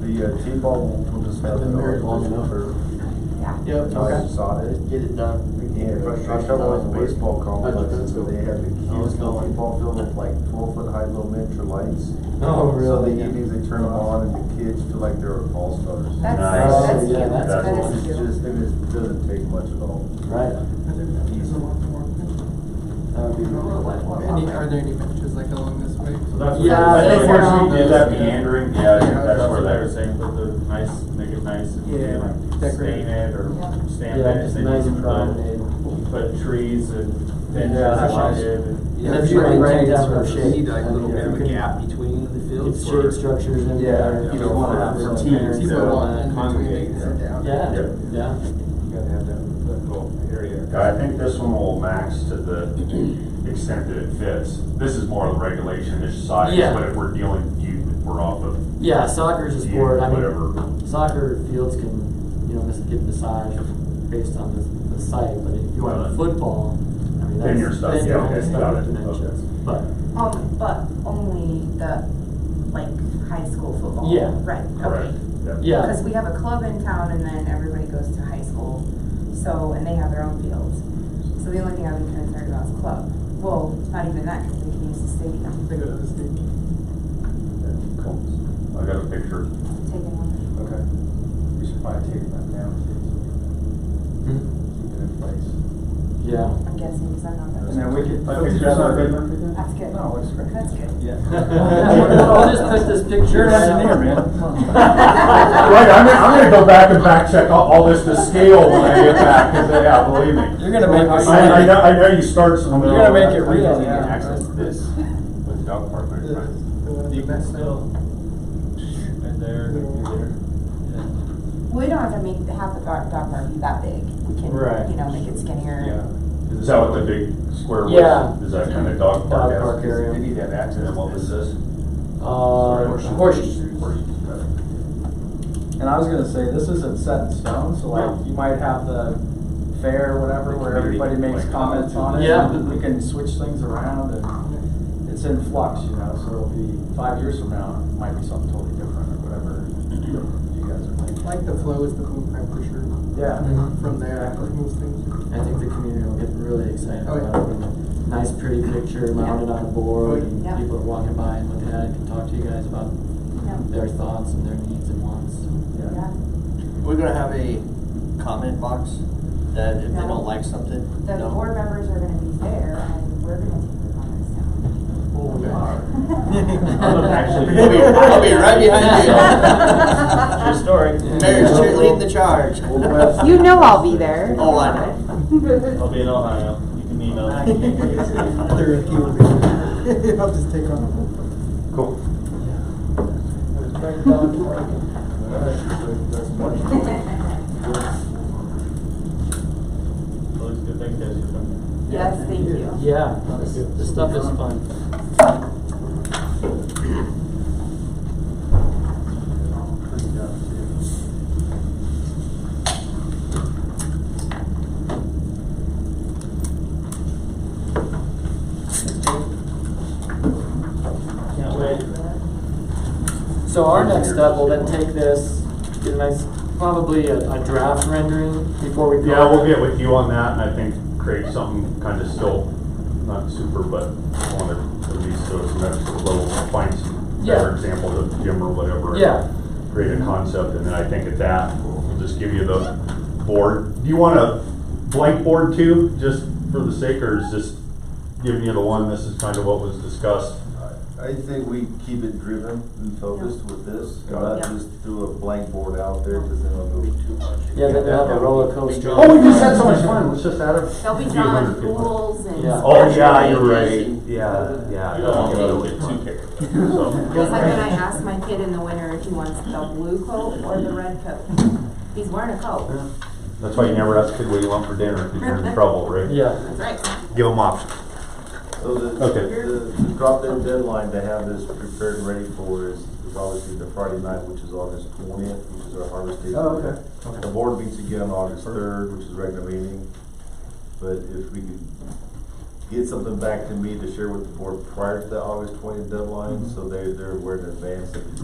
the uh, T-ball will just have. Been married long enough. Yep. I saw it. Get it done. Yeah, I travel with baseball complexes, so they have the I was huge going. T-ball field with like twelve foot high low miniature lights. Oh, So the really? evenings they turn them on and the kids feel like they're all stars. That's, Nice. that's Oh, yeah, cute, that's that cool. is It's cute. just, and it doesn't take much at all. Right. That would be really Any, are there any benches like along this way? So that's Yeah, where- that's where where she did that those- meandering, yeah, I think Yeah, that's that's where they what- were saying, put the nice, make it nice and Yeah, and decorate. stain it or Yeah. stamp it. Yeah, just They nice just and promenade. put- Put trees and benches Yeah, that's along nice. it and. Yeah, if you maintain that sort of shape. Need like a I little mean, bit if of you a can gap between the Get fields. shade structures in Yeah, there. you if don't wanna want to have have some teams parents that and all are that. congregate. Yeah, Yeah. yeah. You gotta have that little area. I think this one will max to the extent that it fits. This is more of the regulation-ish size, Yeah. but if we're dealing, you, we're off of Yeah, soccer's a you, sport, I mean, whatever. soccer fields can, you know, mis- get massaged based on the, the site, but if you want Right. football, I mean, that's. Then you're stuck, yeah, kinda okay, stuck got with it, dimensions. okay. But, Um, but only the, like, high school football? Yeah. Right, Correct. okay. yeah, Because we have a club in town and then everybody goes to high school, so, and they have their own fields. So the only thing I'm concerned about is club. Well, not even that, because they can use the stadium, They go to the state. Cool. I got a picture. taking one. Okay. We should probably take that down, Hmm. keep it in place. yeah. I'm guessing, because I'm not that. And then we could. Like, it's not good. That's good. No, it's great. That's good. Yeah. I'll just put this picture. You're right an engineer, up. man. Come Right, I'm gonna, I'm gonna go back and back check all, all this to scale when I get back, cause yeah, believe me. You're gonna make us- I, I know, I know you start some. You're gonna make it real, yeah. Access this with dog park. The, the one at the back. And there, there. We don't have to make, have the dog, dog park be that big. We can, Right. you know, make it skinnier. Is that what the big square was? Yeah. Is that kinda dog park? Dog esque? park area. They need that access, what was this? Uh, horseshoes. And I was gonna say, this isn't set in stone, so like, you might have the fair or whatever, where everybody makes comments on it. Yeah. We can switch things around and it's in flux, you know, so it'll be, five years from now, it might be something totally different or whatever you guys are I thinking. Like the flow is the blueprint for sure. Yeah. Mhm. From there, it moves things. I think the community will get really excited Oh, yeah. Oh, about it. Nice pretty picture mounted on a board, and Yeah. people are walking by and looking at it, can talk to you guys about Yeah. their thoughts and their needs and wants. Yeah. We're gonna have a comment box that if they No. don't like something, The no. board members are gonna be there and we're gonna take the comments Oh, I'm down. actually- I'll be, I'll be right Yeah. behind you. True story. Mary's cheerleading the charge. You know I'll be there. Oh, I know. I'll be in Ohio, you can They're a few. I'll just take on. Cool. Looks good, thanks guys for coming. Yes, thank you. Yeah, the stuff is fun. Can't wait. So our next step will then take this, get a nice, probably a, a draft rendering before we go. Yeah, we'll get with you on that, and I think create something kind of still, not super, but I want to at least go some extra level, find some Yeah. better examples of Jim or whatever. and Yeah. Create a concept, and then I think at that, we'll just give you the board. Do you want a blank board too, just for the sake, or is just giving you the one, this is kind of what was discussed? I think we keep it driven and focused with this, and not Yeah. just throw a blank board out there, cause then it'll go too much. Yeah, then they'll have a roller coaster. Oh, we just had so much fun, let's just add a. They'll be few drawing hundred people. pools and. Yeah. Oh, yeah, you're right, yeah, yeah. I don't want to get too carried away. So- Just like when I asked my kid in the winter if he wants the blue coat or the red coat. He's wearing a coat. That's why you never ask a kid what you want for dinner, because you're in trouble, right? Yeah, That's right. Give them options. So the, Okay. the, the drop dead deadline to have this prepared and ready for is, is obviously the Friday night, which is August twentieth, which is our harvest day. Oh, okay. The board meets again on August third, which is regular meeting, but if we could get something back to me to share with the board prior to the August twentieth deadline, so they, they're aware in advance that